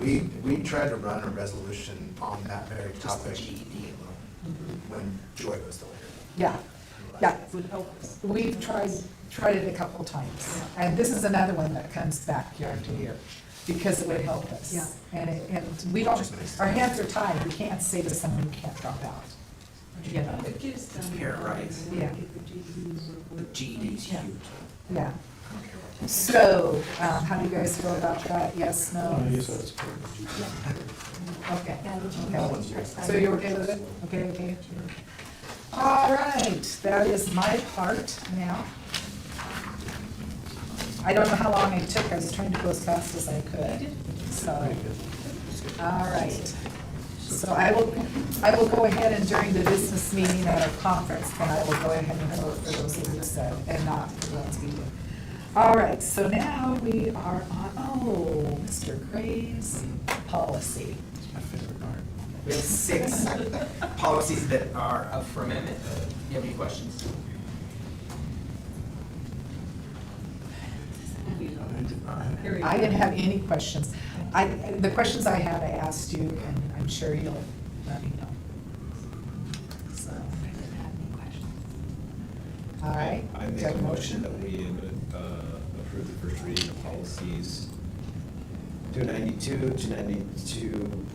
We, we tried to run a resolution on that very Just the topic GED when Joy was the leader. Yeah, yeah. would help us. We've tried, tried it a couple times. And this is another one that comes back year after year because it would help us. Yeah. And it, and we don't, our hands are tied. We can't say to someone, you can't drop out. Yeah. It's Pair of rights. Yeah. The GED is huge. Yeah. Yeah. So, um, how do you guys feel about that? Yes, no? Okay. Okay. So you're okay with it? Okay, okay. All right, that is my part now. I don't know how long it took, I was trying to go as fast as I could, so. All right. So I will, I will go ahead and during the business meeting at our conference, then I will go ahead and vote for those who just said, and not for those who didn't. All right, so now we are on, oh, Mr. Gray's policy. My favorite part. We have six. Policies that are up for amendment. You have any questions? I didn't have any questions. I, the questions I had, I asked you, and I'm sure you'll let me know. So, all right. I do make I have a motion that we uh, approve the first reading of policies two ninety-two, two ninety-two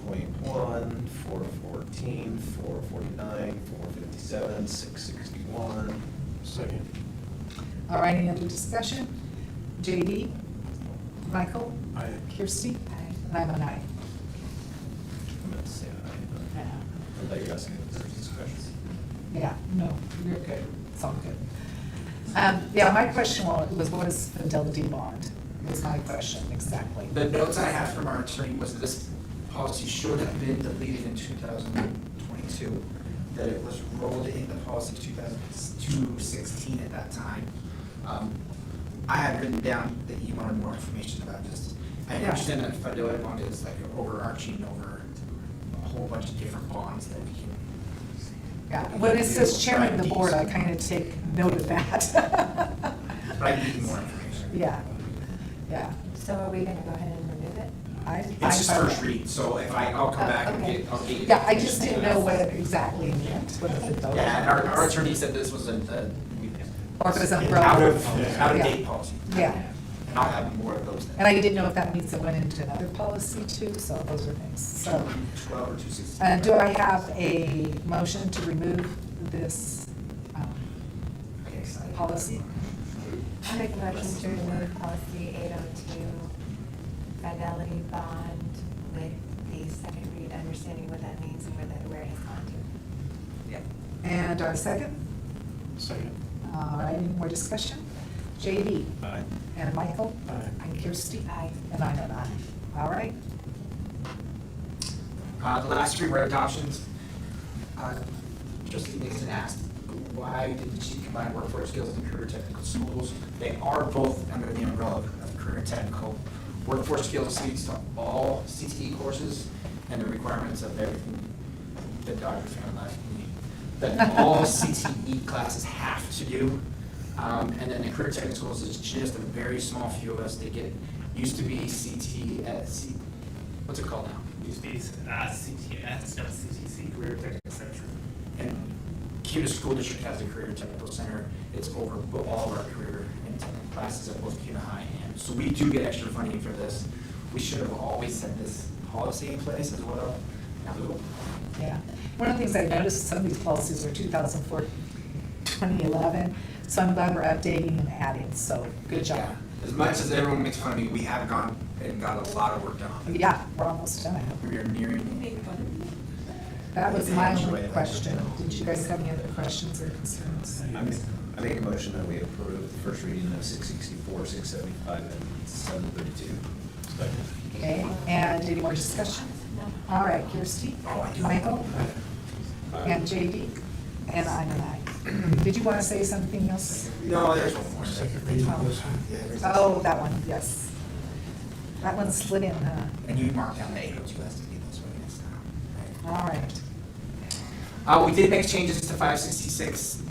point one, four fourteen, four forty-nine, four fifty-seven, six sixty-one. Second. All right, any other discussion? JD? Michael? Kirsty? And I'm an aye. I'm gonna say aye, but I guess there's discussion. Yeah, no, you're good, it's all good. Um, yeah, my question wa- was, what is fidelity bond? Was my question, exactly. The notes I have from our attorney was that this policy should have been deleted in two thousand twenty-two, that it was rolled into policy 2016 at that time. Um, I had written down that you wanted more information about this. I Yeah. understand that fidelity bond is like overarching over a whole bunch of different bonds that we can. Yeah, when it says chairman of the board, I kind of take note of that. But I need more information. Yeah, yeah. So are we gonna go ahead and remove it? I- I It's just find first that- read, so if I, I'll come back and get, I'll get. you the Yeah, I just information. didn't know what it exactly meant, what the fidelity. Yeah, and our, our was. attorney said this was a, a. Or if it's an umbrella. Out of, out of Yeah. date policy. Yeah. And I'll have more of those then. And I didn't know if that means it went into another policy too, so those are things, so. Twelve or two sixteen. Uh, do I have a motion to remove this, um, Okay, so I- policy? I make a motion to remove policy eight oh two, fidelity bond, with the second read, understanding what that means and where that, where it has gone to. Yeah. and our second? Second. All right, Uh, any more discussion? JD? Aye. And Michael? Aye. And Kirsty? Aye. And I'm an aye. All right. Uh, the last three were adoptions. Uh, Trustee Nixon asked, why didn't she combine workforce skills and career technical schools? They are both under the umbrella of career technical. Workforce skills speaks to all CTE courses and the requirements of everything that Dr. Fan left me. That all CTE classes have to do. Um, and then the career technical schools is just a very small few of us that get, used to be CTE at C, what's it called now? Used to be uh, CTS, no, CTC, Career Technical Center. And CUDA School District has a career technical center. It's over bo- all of our career and technical classes at both CUDA High and, so we do get extra funding for this. We should have always had this policy in place as well. Now, we'll- Yeah. One of the things I noticed, some of these policies are 2004, 2011, so I'm glad we're updating and adding, so good job. Yeah. As much as everyone makes fun of me, we have gone and got a lot of work done. on it. Oh, Yeah, we're almost done. We are nearing. That was my only question. Did you guys have any other questions or concerns? I make, I make a motion that we approve the first reading of six sixty-four, six seventy-five, and seven thirty-two. Second. Okay, and any more discussion? All right, Kirsty? Michael? And JD? And I'm an aye. Did you want to say something else? No, there's one more. Second Oh, that one, yes. That one slid in, huh? And you mark down the eight oh two has to be this way next time. right? All right. Uh, we did make changes to five sixty-six,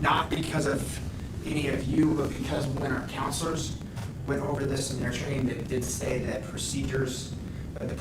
not because of any of you, but because when our counselors went over this in their training, they did say that procedures, uh, the